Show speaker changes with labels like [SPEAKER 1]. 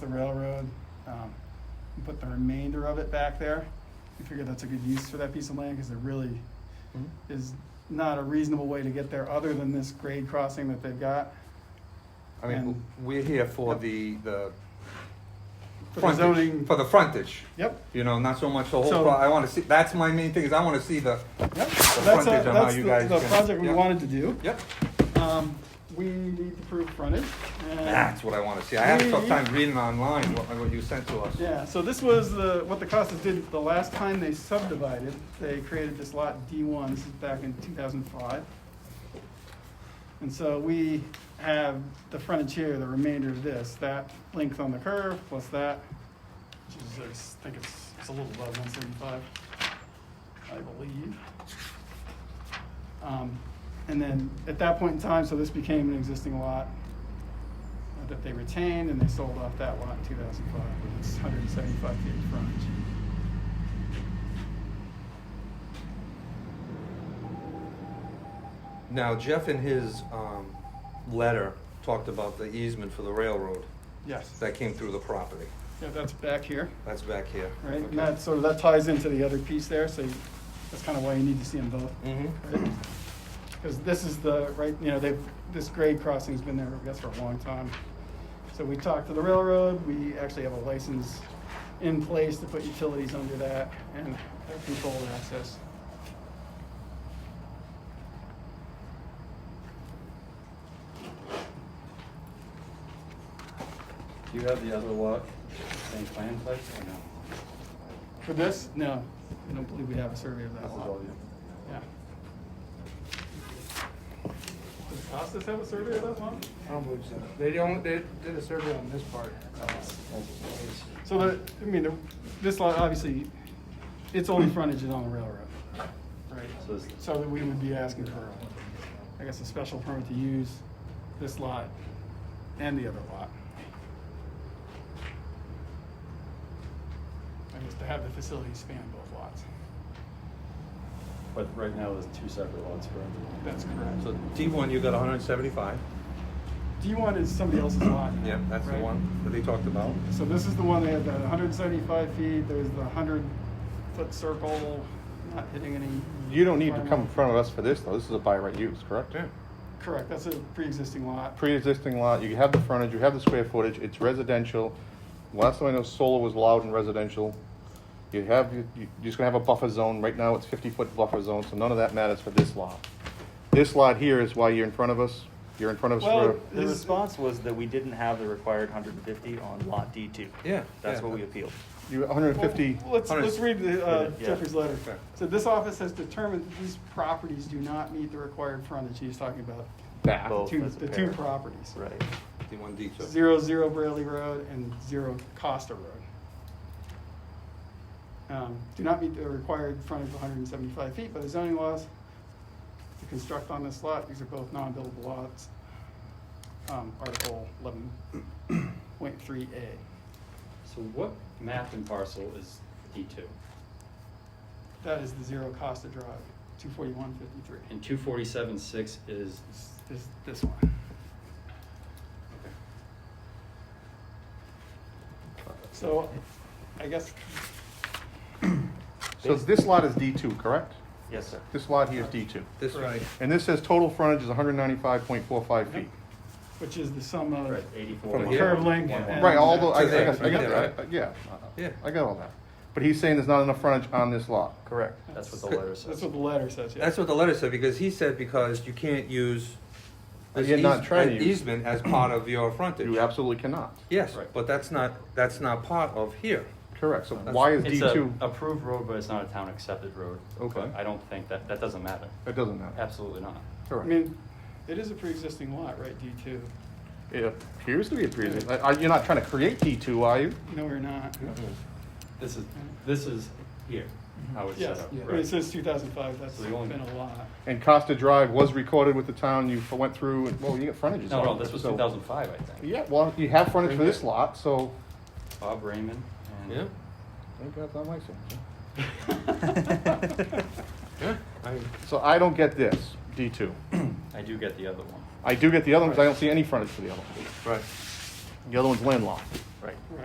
[SPEAKER 1] railroad, um, and put the remainder of it back there. We figure that's a good use for that piece of land, cause there really
[SPEAKER 2] Mhm.
[SPEAKER 1] is not a reasonable way to get there other than this grade crossing that they've got.
[SPEAKER 2] I mean,
[SPEAKER 1] And-
[SPEAKER 2] we're here for
[SPEAKER 1] Yep.
[SPEAKER 2] the, the.
[SPEAKER 1] For the
[SPEAKER 2] frontage-
[SPEAKER 1] zoning-
[SPEAKER 2] For the frontage,
[SPEAKER 1] Yep,
[SPEAKER 2] you know, not so much the whole,
[SPEAKER 1] So-
[SPEAKER 2] pro- I wanna see, that's my main thing, is I wanna see the,
[SPEAKER 1] yep, that's,
[SPEAKER 2] The
[SPEAKER 1] a-
[SPEAKER 2] frontage on how
[SPEAKER 1] that's
[SPEAKER 2] you
[SPEAKER 1] the,
[SPEAKER 2] guys
[SPEAKER 1] the
[SPEAKER 2] can-
[SPEAKER 1] project we
[SPEAKER 2] yep.
[SPEAKER 1] wanted to do.
[SPEAKER 2] yep,
[SPEAKER 1] Um, we need to prove frontage and.
[SPEAKER 2] that's what I wanna see. I had a tough time reading online what, what you sent to us.
[SPEAKER 1] Yeah, so this was the, what the Costas did the last time they subdivided. They created this lot D1 this is back in 2005. And so we have the frontage here, the remainder of this, that length on the curve plus that, which is, I think it's, it's a little above 175, I believe. Um, And then at that point in time, so this became an existing lot uh, that they retained, and they sold off that lot in 2005. It's 175 feet of frontage.
[SPEAKER 2] Now Jeff in his, um, letter talked about the easement for the railroad
[SPEAKER 1] Yes,
[SPEAKER 2] that came through the property.
[SPEAKER 1] yeah, that's back here,
[SPEAKER 2] That's back here.
[SPEAKER 1] right? And that sort of, that ties into the other piece there, so you- that's kind of why you need to see them both.
[SPEAKER 2] hmm
[SPEAKER 1] Because this is the, right, you know, they've, this grade crossing's been there, I guess, for a long time. So we talked to the railroad, we actually have a license in place to put utilities under that and controlled access.
[SPEAKER 3] Do you have the other lot, same plan place or no?
[SPEAKER 1] For this, no, I don't believe we have a survey of that
[SPEAKER 3] This is
[SPEAKER 1] lot.
[SPEAKER 3] all you.
[SPEAKER 1] Yeah. Does Costas have a survey of that one?
[SPEAKER 4] I don't believe so. They don't, they did a survey on this part. Uh,
[SPEAKER 1] So the, I mean, the- this lot, obviously, its only frontage is on the railroad, right?
[SPEAKER 3] So it's-
[SPEAKER 1] So that we would be asking for, I guess, a special permit to use this lot and the other lot. I guess to have the facility span both lots.
[SPEAKER 3] But right now, there's two separate lots, correct?
[SPEAKER 1] That's correct.
[SPEAKER 2] So D one, you got hundred and seventy-five?
[SPEAKER 1] D1 is somebody else's lot.
[SPEAKER 2] Yeah, that's the
[SPEAKER 1] right?
[SPEAKER 2] one that they talked about.
[SPEAKER 1] So this is the one that had the 175 feet, there's the 100-foot circle, not hitting any.
[SPEAKER 5] You don't need to come in front of us for this, though. This is a by right use, correct?
[SPEAKER 2] Yeah.
[SPEAKER 1] Correct, that's a pre-existing lot.
[SPEAKER 5] Pre-existing lot, you have the frontage, you have the square footage, it's residential. Last time I know, solar was allowed in residential. You have, you- you're just gonna have a buffer zone. Right now, it's fifty-foot buffer zone, so none of that matters for this lot. This lot here is why you're in front of us. You're in front of
[SPEAKER 1] Well,
[SPEAKER 5] us for,
[SPEAKER 3] The
[SPEAKER 1] Is-
[SPEAKER 3] response was that we didn't have the required hundred and fifty on lot D two.
[SPEAKER 2] Yeah,
[SPEAKER 3] That's
[SPEAKER 2] yeah.
[SPEAKER 3] what we appealed.
[SPEAKER 5] you, hundred and fifty.
[SPEAKER 1] Well, Let's, let's read the, uh,
[SPEAKER 3] Yeah.
[SPEAKER 1] Jeffrey's letter.
[SPEAKER 2] Okay.
[SPEAKER 1] So this office has determined that these properties do not meet the required frontage, he's talking about
[SPEAKER 5] Back.
[SPEAKER 3] Both
[SPEAKER 1] two,
[SPEAKER 3] as a
[SPEAKER 1] the two
[SPEAKER 3] pair.
[SPEAKER 1] properties.
[SPEAKER 3] Right.
[SPEAKER 2] D one, D two.
[SPEAKER 1] Zero, zero Braley Road and zero Costa Road. Um, do not meet the required frontage of hundred and seventy-five feet by the zoning laws to construct on this lot. These are both non-buildable lots. Um, Article eleven point three A.
[SPEAKER 3] So what map and parcel is D two?
[SPEAKER 1] That is the zero Costa Drive, two forty-one fifty-three.
[SPEAKER 3] And two forty-seven six is,
[SPEAKER 1] Is this one. So, I guess,
[SPEAKER 5] So this lot is D two, correct?
[SPEAKER 3] yes, sir.
[SPEAKER 5] This lot here is D two.
[SPEAKER 2] This way.
[SPEAKER 1] Right.
[SPEAKER 5] And this says total frontage is hundred and ninety-five point four five feet.
[SPEAKER 1] which is the sum of
[SPEAKER 3] Right, eighty-four.
[SPEAKER 2] From
[SPEAKER 3] one-
[SPEAKER 2] here?
[SPEAKER 1] curve length
[SPEAKER 3] one- one-
[SPEAKER 1] and-
[SPEAKER 5] Right, all the, I, I
[SPEAKER 2] To there,
[SPEAKER 5] got, I got,
[SPEAKER 2] yeah,
[SPEAKER 5] that.
[SPEAKER 2] right.
[SPEAKER 5] I- yeah.
[SPEAKER 2] Yeah.
[SPEAKER 5] I got all that. But he's saying there's not enough frontage on this lot.
[SPEAKER 3] Correct, that's what the letter says.
[SPEAKER 1] That's what the letter says, yeah.
[SPEAKER 2] That's what the letter said, because he said because you can't use
[SPEAKER 5] But
[SPEAKER 2] this
[SPEAKER 5] you're not
[SPEAKER 2] eas-
[SPEAKER 5] trying to
[SPEAKER 2] an
[SPEAKER 5] use-
[SPEAKER 2] easement as part of your frontage.
[SPEAKER 5] You absolutely cannot.
[SPEAKER 2] Yes,
[SPEAKER 3] Right.
[SPEAKER 2] but that's not, that's not part of here.
[SPEAKER 5] Correct, so
[SPEAKER 2] That's-
[SPEAKER 5] why is D
[SPEAKER 6] It's a
[SPEAKER 5] two?
[SPEAKER 6] approved road, but it's not a town accepted road.
[SPEAKER 5] Okay.
[SPEAKER 6] But I don't think that, that doesn't matter.
[SPEAKER 5] It doesn't matter.
[SPEAKER 6] Absolutely not.
[SPEAKER 1] I
[SPEAKER 5] Correct.
[SPEAKER 1] mean, it is a pre-existing lot, right, D two?
[SPEAKER 5] It appears to be a pre-existing, are, you're not trying to create D two, are you?
[SPEAKER 1] No, we're not.
[SPEAKER 6] This is, this is here, how it's set
[SPEAKER 1] Yes,
[SPEAKER 6] up.
[SPEAKER 1] I mean,
[SPEAKER 6] Right.
[SPEAKER 1] it says two thousand five, that's
[SPEAKER 6] So
[SPEAKER 1] been
[SPEAKER 6] the only-
[SPEAKER 1] a lot.
[SPEAKER 5] And Costa Drive was recorded with the town, you f- went through, and, well, you got frontages.
[SPEAKER 6] No,
[SPEAKER 5] on
[SPEAKER 6] no,
[SPEAKER 5] it,
[SPEAKER 6] this was
[SPEAKER 5] so-
[SPEAKER 6] two thousand five, I think.
[SPEAKER 5] Yeah, well, you have frontage for this lot, so.
[SPEAKER 6] Bob Raymond and.
[SPEAKER 2] Yeah,
[SPEAKER 5] Thank God, that makes sense.
[SPEAKER 2] yeah. I,
[SPEAKER 5] So I don't get this, D two.
[SPEAKER 6] I do get the other one.
[SPEAKER 5] I do get the other one, because I don't see any frontage for the other one.
[SPEAKER 2] right.
[SPEAKER 5] The other one's landlocked.
[SPEAKER 6] Right.